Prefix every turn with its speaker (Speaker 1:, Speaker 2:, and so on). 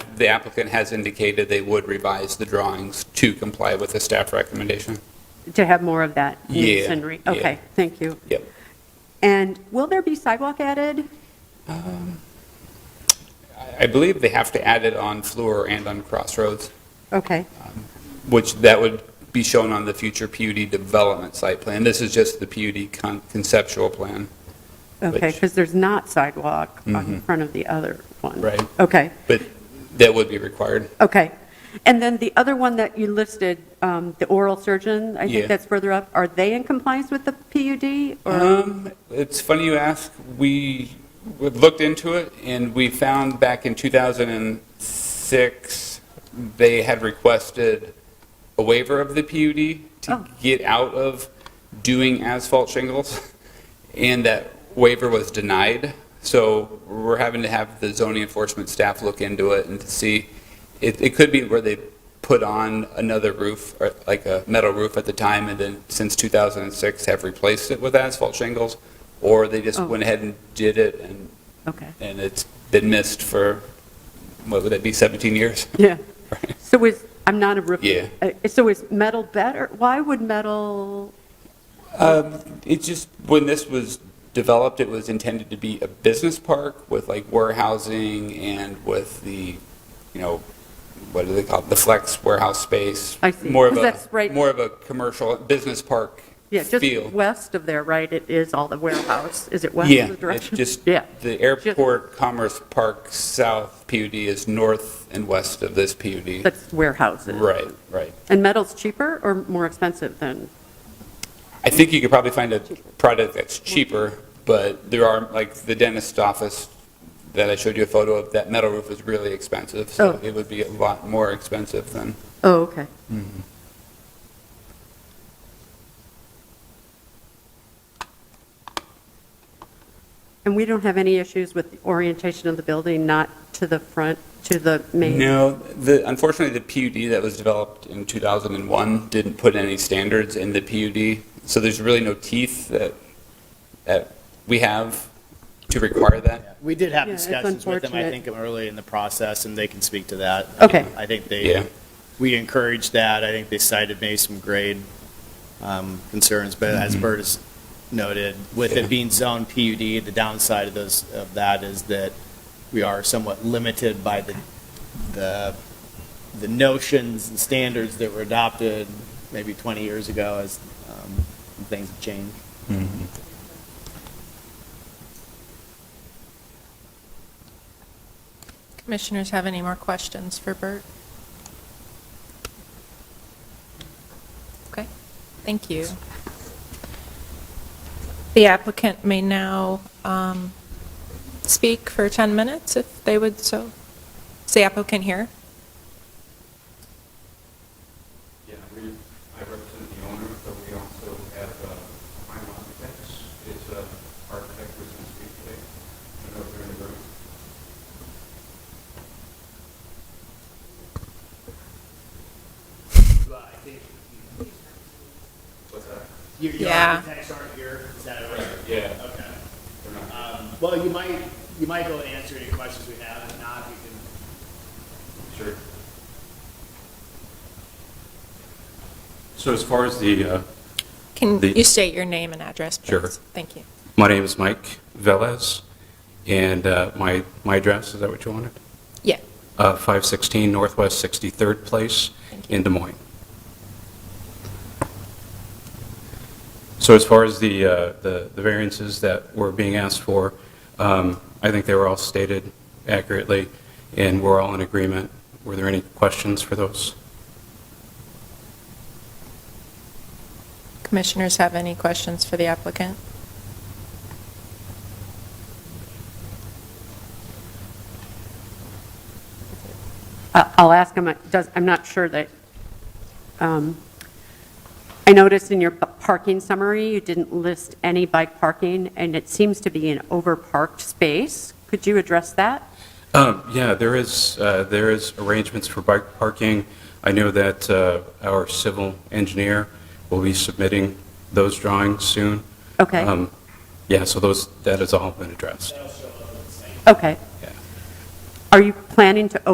Speaker 1: the applicant has indicated they would revise the drawings to comply with the staff recommendation.
Speaker 2: to have more of that
Speaker 1: Yeah,
Speaker 2: masonry?
Speaker 1: yeah.
Speaker 2: Okay, thank you.
Speaker 1: Yep.
Speaker 2: And will there be sidewalk added?
Speaker 1: I- I believe they have to add it on Fleur and on Crossroads,
Speaker 2: Okay,
Speaker 1: which that would be shown on the future PUD development site plan. This is just the PUD con- conceptual plan.
Speaker 2: okay,
Speaker 1: Which-
Speaker 2: because there's not sidewalk on
Speaker 1: Mhm.
Speaker 2: front of the other one.
Speaker 1: Right.
Speaker 2: Okay,
Speaker 1: But that would be required.
Speaker 2: okay. And then the other one that you listed, um, the oral surgeon, I
Speaker 1: Yeah.
Speaker 2: think that's further up, are they in compliance with the PUD? or
Speaker 1: Um, it's funny you ask. We we looked into it, and we found back in 2006, they had requested a waiver of the PUD to
Speaker 2: Oh.
Speaker 1: get out of doing asphalt shingles, and that waiver was denied. So we're having to have the zoning enforcement staff look into it and to see. It, it could be where they put on another roof, or like a metal roof at the time, and then since 2006 have replaced it with asphalt shingles, or they just
Speaker 2: Oh.
Speaker 1: went ahead and did it, and,
Speaker 2: Okay,
Speaker 1: and it's been missed for, what would that be, 17 years?
Speaker 2: yeah.
Speaker 1: Right.
Speaker 2: So is, I'm not a roof.
Speaker 1: Yeah.
Speaker 2: uh, So is metal better? Why would metal,
Speaker 1: Um, It just, when this was developed, it was intended to be a business park with like warehousing and with the, you know, what do they call it, the flex warehouse space.
Speaker 2: I see.
Speaker 1: More of
Speaker 2: 'Cause
Speaker 1: a-
Speaker 2: that's right-
Speaker 1: More of a commercial, business park
Speaker 2: yeah,
Speaker 1: feel.
Speaker 2: just west of there, right? It is all the warehouse. Is it west
Speaker 1: Yeah,
Speaker 2: of the
Speaker 1: it's
Speaker 2: direction?
Speaker 1: just,
Speaker 2: Yeah,
Speaker 1: the Airport Commerce Park South PUD is north and west of this PUD.
Speaker 2: that's warehouses.
Speaker 1: Right, right.
Speaker 2: And metal's cheaper or more expensive than,
Speaker 1: I think you could probably find a product that's cheaper, but there are, like, the dentist's office that I showed you a photo of, that metal roof is really expensive, so
Speaker 2: Oh.
Speaker 1: it would be a lot more expensive than,
Speaker 2: oh, okay. And we don't have any issues with the orientation of the building, not to the front, to the main?
Speaker 1: No, the, unfortunately, the PUD that was developed in 2001 didn't put any standards in the PUD, so there's really no teeth that, that we have to require that.
Speaker 3: We did have
Speaker 2: Yeah, it's
Speaker 3: discussions with them, I
Speaker 2: unfortunate.
Speaker 3: think, early in the process, and they can speak to that.
Speaker 2: Okay.
Speaker 3: I think
Speaker 1: Yeah.
Speaker 3: they, we encouraged that. I think they cited maybe some grade um, concerns, but as Bert has noted, with
Speaker 1: Mm-hmm. Yeah.
Speaker 3: it being zone PUD, the downside of those, of that is that we are somewhat limited by the, the, the notions and standards that were adopted maybe 20 years ago as um, things have changed.
Speaker 4: Commissioners have any more questions for Bert? Okay, thank you. The applicant may now um, speak for 10 minutes if they would so. Is the applicant here?
Speaker 5: Yeah, we, I represent the owner, but we also have uh, Prime Architects. It's an architect who's going to speak today. I don't know if they're in the room. What's that?
Speaker 3: Your, your
Speaker 4: Yeah.
Speaker 3: architects aren't here, is that right?
Speaker 5: Yeah.
Speaker 3: Okay.
Speaker 5: They're not.
Speaker 3: Um, well, you might, you might be able to answer any questions we have, if not, we can
Speaker 5: Sure. So as far as the, uh,
Speaker 4: Can
Speaker 5: The-
Speaker 4: you state your name and address, please?
Speaker 5: Sure.
Speaker 4: Thank you.
Speaker 5: my name is Mike Velez, and uh, my, my address, is that what you wanted?
Speaker 4: Yeah.
Speaker 5: Uh, 516 Northwest 63rd Place
Speaker 4: Thank you.
Speaker 5: in Des Moines. So as far as the, uh, the the variances that were being asked for, um, I think they were all stated accurately, and we're all in agreement. Were there any questions for those?
Speaker 4: Commissioners have any questions for the applicant?
Speaker 2: I- I'll ask him, it does- I'm not sure that, um, I noticed in your p- parking summary, you didn't list any bike parking, and it seems to be an over-parked space. Could you address that?
Speaker 5: Um, Yeah, there is, uh, there is arrangements for bike parking. I know that uh, our civil engineer will be submitting those drawings soon.
Speaker 2: Okay,
Speaker 5: Um, Yeah, so those, that has all been addressed.
Speaker 2: okay.
Speaker 5: Yeah.
Speaker 2: Are you planning to